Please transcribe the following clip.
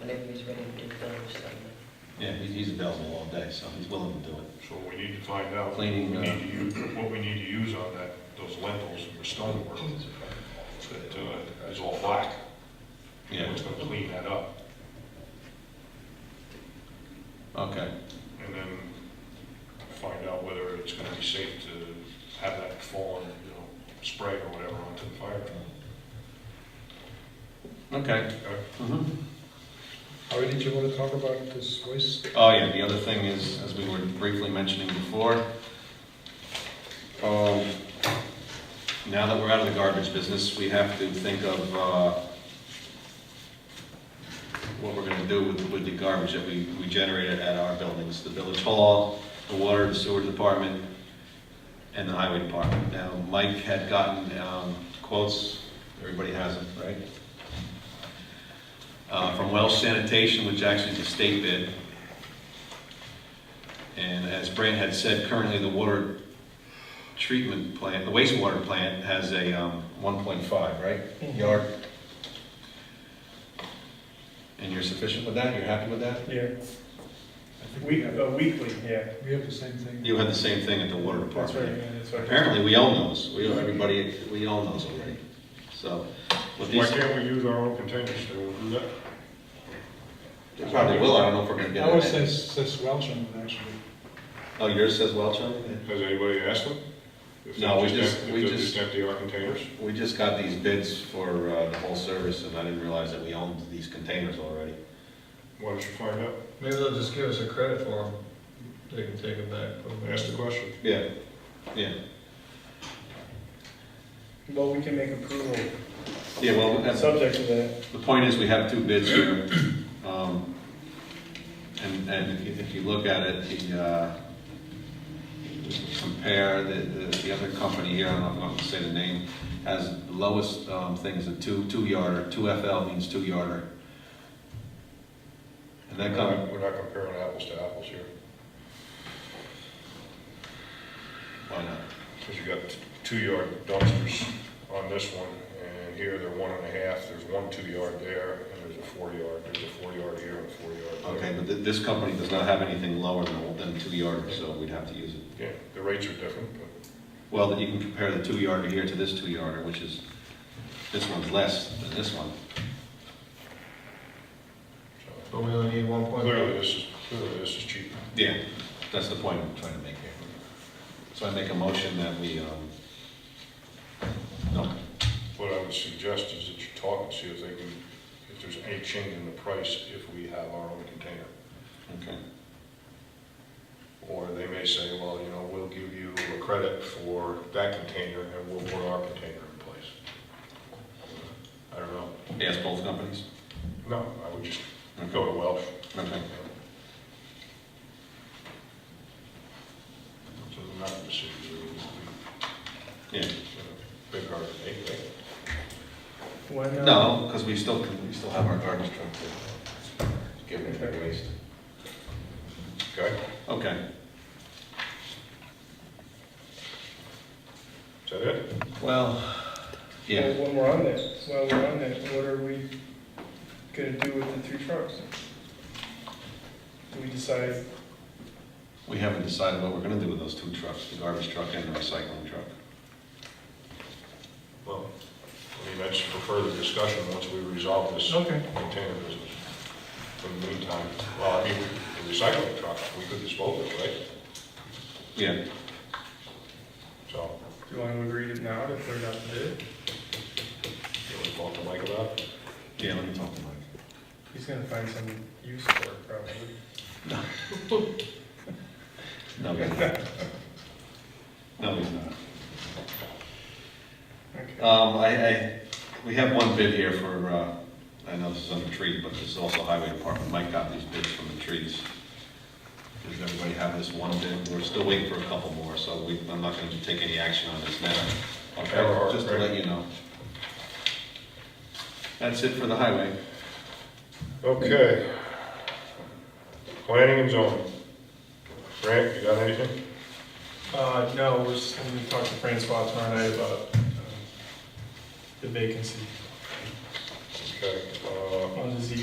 whenever he's ready to do those, so. Yeah, he's, he's available all day, so he's willing to do it. So we need to find out, we Cleaning, need uh, to use, what we need to use on that, those lentils for stonework, that uh, is all black. Yeah, What's gonna clean that up? okay, And then find out whether it's gonna be safe to have that fallen, you know, spray or whatever onto the fire truck. okay. Okay. Mhm. Ari, did you want to talk about this waste? Oh, yeah, the other thing is, as we were briefly mentioning before, um, now that we're out of the garbage business, we have to think of uh, what we're gonna do with, with the garbage that we, we generated at our buildings, the village hall, the water, the sewer department, and the highway department. Now, Mike had gotten um, quotes, everybody has them, right? Uh, From Welsh Sanitation, which actually is a state bid, and as Brant had said, currently the water treatment plant, the wastewater plant has a um, 1.5, right, Mm-hmm. yard? And you're sufficient with that, you're happy with that? Yeah, we, uh, weekly, yeah. We have the same thing. You had the same thing at the water That's right, department. yeah, that's right. Apparently, we own those, we, everybody, we own those already, so. with Why these, can't we use our own containers to do that? They probably will, I don't know if we're gonna get it. Ours says, says Welsh on it, actually. Oh, yours says Welch on it? Has anybody asked them? If they No, we just- em- we If they just- just empty our containers? We just got these bids for uh, the whole service, and I didn't realize that we owned these containers already. Why don't you find out? Maybe they'll just give us a credit for them. They can take it back. put 'em in. Ask the question. Yeah, yeah. Well, we can make approval, Yeah, well, that's, subject to that. the point is, we have two bids here. um, And, and if you, if you look at it, the, uh, compare, the, the the other company here, I don't know if I'm gonna say the name, has the lowest um, things, a two, two yarder, two FL means two yarder. And that We're company, not- We're not comparing apples to apples here, why not? because you got two-yard dumpsters on this one, and here they're one and a half, there's one two-yard there, and there's a four-yard, there's a four-yard here and a four-yard Okay, there. but th- this company does not have anything lower than, than two yarder, so we'd have to use it. Yeah, the rates are different, but Well, that you can compare the two yarder here to this two yarder, which is, this one's less than this one. so But we only need one point. uh, clearly this is, clearly this is cheaper. Yeah, that's the point I'm trying to make here. So I make a motion that we, um, no, What I would suggest is that you talk and see if they can, if there's any change in the price if we have our own container. okay, Or they may say, well, you know, we'll give you a credit for that container and we'll put our container in place. I don't know. yes, both companies? No, I would just Okay, go to Welsh. okay, So the amount of decisions are, yeah. big hard to make, right? When, uh, No, because we still, can- we still have our garbage truck to give it their waste. Okay, Okay, is that it? well, yeah, When we're on this, while we're on this, what are we gonna do with the three trucks? Do we decide, we haven't decided what we're gonna do with those two trucks, the garbage truck and the recycling truck. Well, I mean, that's for further discussion once we resolve this okay, container business. In the meantime, well, I mean, the recycling truck, we could dispose of it, right? Yeah, So, do you wanna agree to now to put it out to bid? you want to talk to Mike about it? yeah, let me talk to Mike. He's gonna find some use for it probably. No, he's not. No, he's not. Okay. Um, I, I, we have one bid here for, uh, I know this is under tree, but this is also highway department. Mike got these bids from the trees. Does everybody have this one bid? We're still waiting for a couple more, so we, I'm not gonna take any action on this now. Okay, just to let you know. That's it for the highway. Okay. Planning and zoning. Grant, you got anything? Uh, no, we're just gonna talk to Francois tomorrow night about um, the vacancy Okay, uh, on the Z